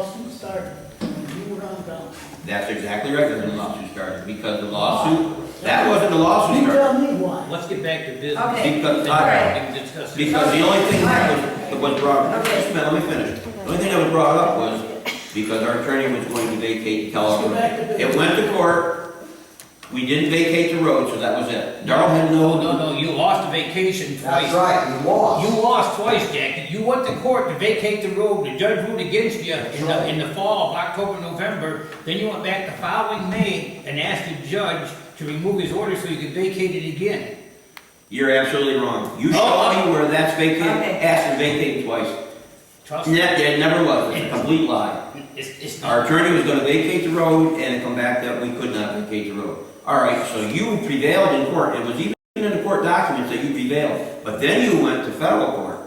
started, when you were on council. That's exactly right, when the lawsuit started, because the lawsuit, that wasn't the lawsuit You started. tell me why. Let's get back to business. Okay. Because, Then I- we can discuss it. because the only thing that was, that was brought, up- just a minute, let me finish. The only thing that was brought up was because our attorney was going to vacate and tell Let's go us. back to It business. went to court, we didn't vacate the road, so that was it. Darrell had No, no, no, no, you lost the vacation twice. That's right, you lost. You lost twice, Jackie. You went to court to vacate the road, the judge ruled against you in the, in the fall, of October, November. Then you went back the following May and asked the judge to remove his order so you could vacate it again. you're absolutely wrong. You show me where that's vacated, Okay. asked to vacate twice. Trust And me, That, that never was, it's a complete lie. it's, it's Our not. attorney was gonna vacate the road and it come back that we could not vacate the road. All right, so you prevailed in court, it was even in the court documents that you prevailed, but then you went to federal court.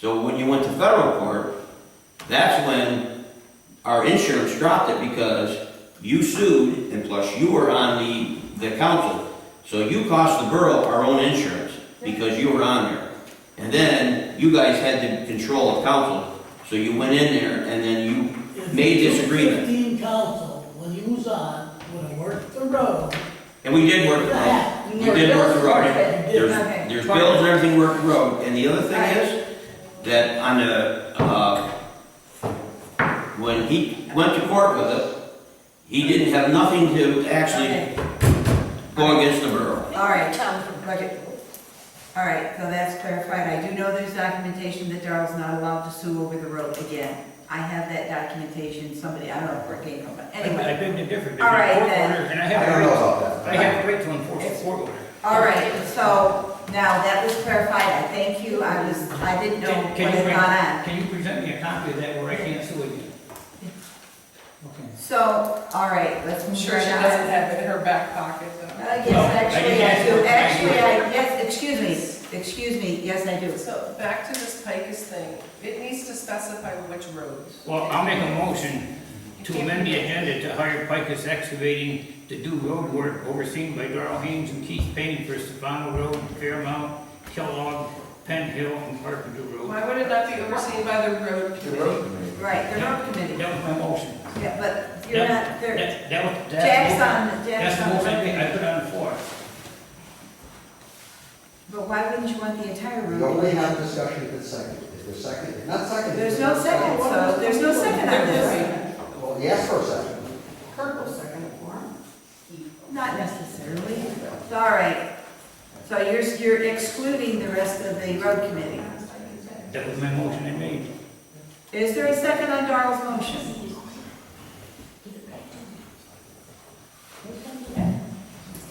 So when you went to federal court, that's when our insurance dropped it because you sued and plus you were on the, the council. So you cost the borough our own insurance because you were on there. And then you guys had the control of council, so you went in there and then you If made this agreement. Fifteen council, when you was on, would have worked the road. And we did work the road. That, We did work the road. There's, Okay. there's bills and everything worked the road. And the other thing is, that on the, uh, when he went to court with it, he didn't have nothing to actually Okay, go against the borough. all right. Okay. All right, so that's clarified. I do know there's documentation that Darrell's not allowed to sue over the road again. I have that documentation, somebody, I don't know where it came from, but I've anyway. been to different, All right, different court then. orders and I I have, don't know a right- about that. I have a right to enforce a court order. All right, so now that was clarified, I thank you, I was, I didn't know Can- what Can you, had bring- gone on. can you present me a copy of that where I can't sue again? Okay. So, all right, let's I'm move sure right she on. doesn't have it in her back pocket, Uh, though. No, I yes, actually, didn't I ask you. do, actually, I, yes, excuse me, excuse me, yes, I do. So back to this Pikus thing, it needs to specify which roads. Well, I'll make a motion to amend the agenda to hire Picus Excavating to do road work overseen by Darrell Haynes and Keith Payne for Stefano Road, Fairmount, Kellogg, Penn Hill, and Carpenter Road. Why would it not be overseen by the road committee? Right, the road committee, That was my motion. yeah, but you're That- not, there, That, that was, that's, Jack's the motion- on, that's Jack's the on. motion I I the- put on the floor. But why wouldn't you want the entire road? Well, we have discussion if it's second, if it's second, if not second. There's no second, so, there's no second on this. Well, yes for a second. Not necessarily, all right. So you're, you're excluding the rest of the road committee. That was my motion I made. Is there a second on Darrell's motion?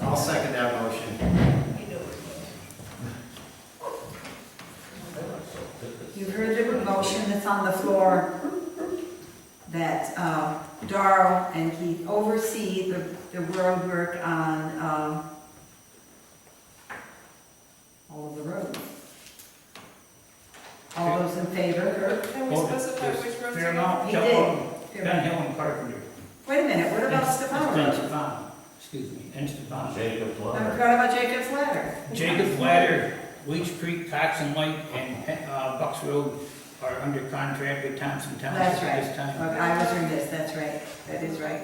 I'll second that motion. You heard the motion that's on the floor that uh, Darrell and Keith oversee the, the road work on, um, all of the roads. All those in favor? Can we Well, specify there's which roads? Fairmount, He Kellogg, did. Penn Hill, and Carpenter. Wait a minute, what about And- Stefano and Road? Stefano, excuse me, and Stefano. Jacob I Plummer. forgot about Jacob's Ladder. Jacob's Ladder, Leach Creek, Cox and Light, and uh, Bucks Road are under contract with Thompson That's Township at right. this time. Okay, I was doing this, that's right, that is right.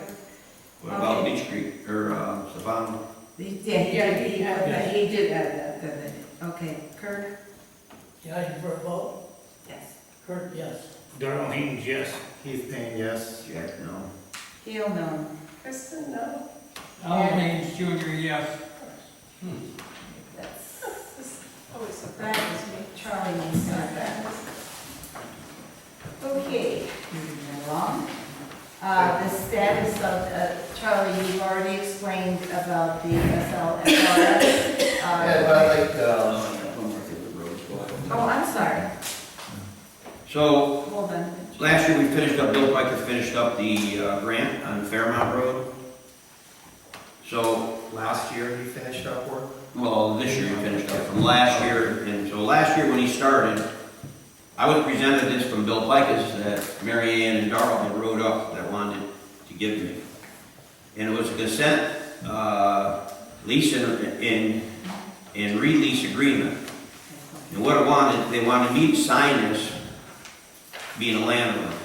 What about Okay. Beach Creek, or, uh, Savannah? He- Yeah, he Yeah, did, he he put had that- that. he did add that, didn't he? Okay, Kirk? Yeah, you were vote, Yes. Kurt, yes. Darrell Haynes, yes. Keith Payne, yes. Jack, no. Heel, no. Kristen, no? Al Haynes Junior, yes. That's, This always that surprises was me. me, Charlie needs to have that. Okay, moving along. Uh, the status of, uh, Charlie, you've already explained about the SLFRS. Yeah, uh, but I like, um, uh, Oh, I'm sorry, So, hold on. Last year, we finished up, Bill Piker finished up the uh, grant on Fairmount Road. So, Last year, he finished up work. well, this year he finished up from last year, and so last year when he started, I was presented this from Bill Pikus that Mary Ann and Darrell had wrote up that wanted to give me. And it was a consent, uh, lease and, and, and release agreement. And what I wanted, they wanted me to sign this, being a landowner.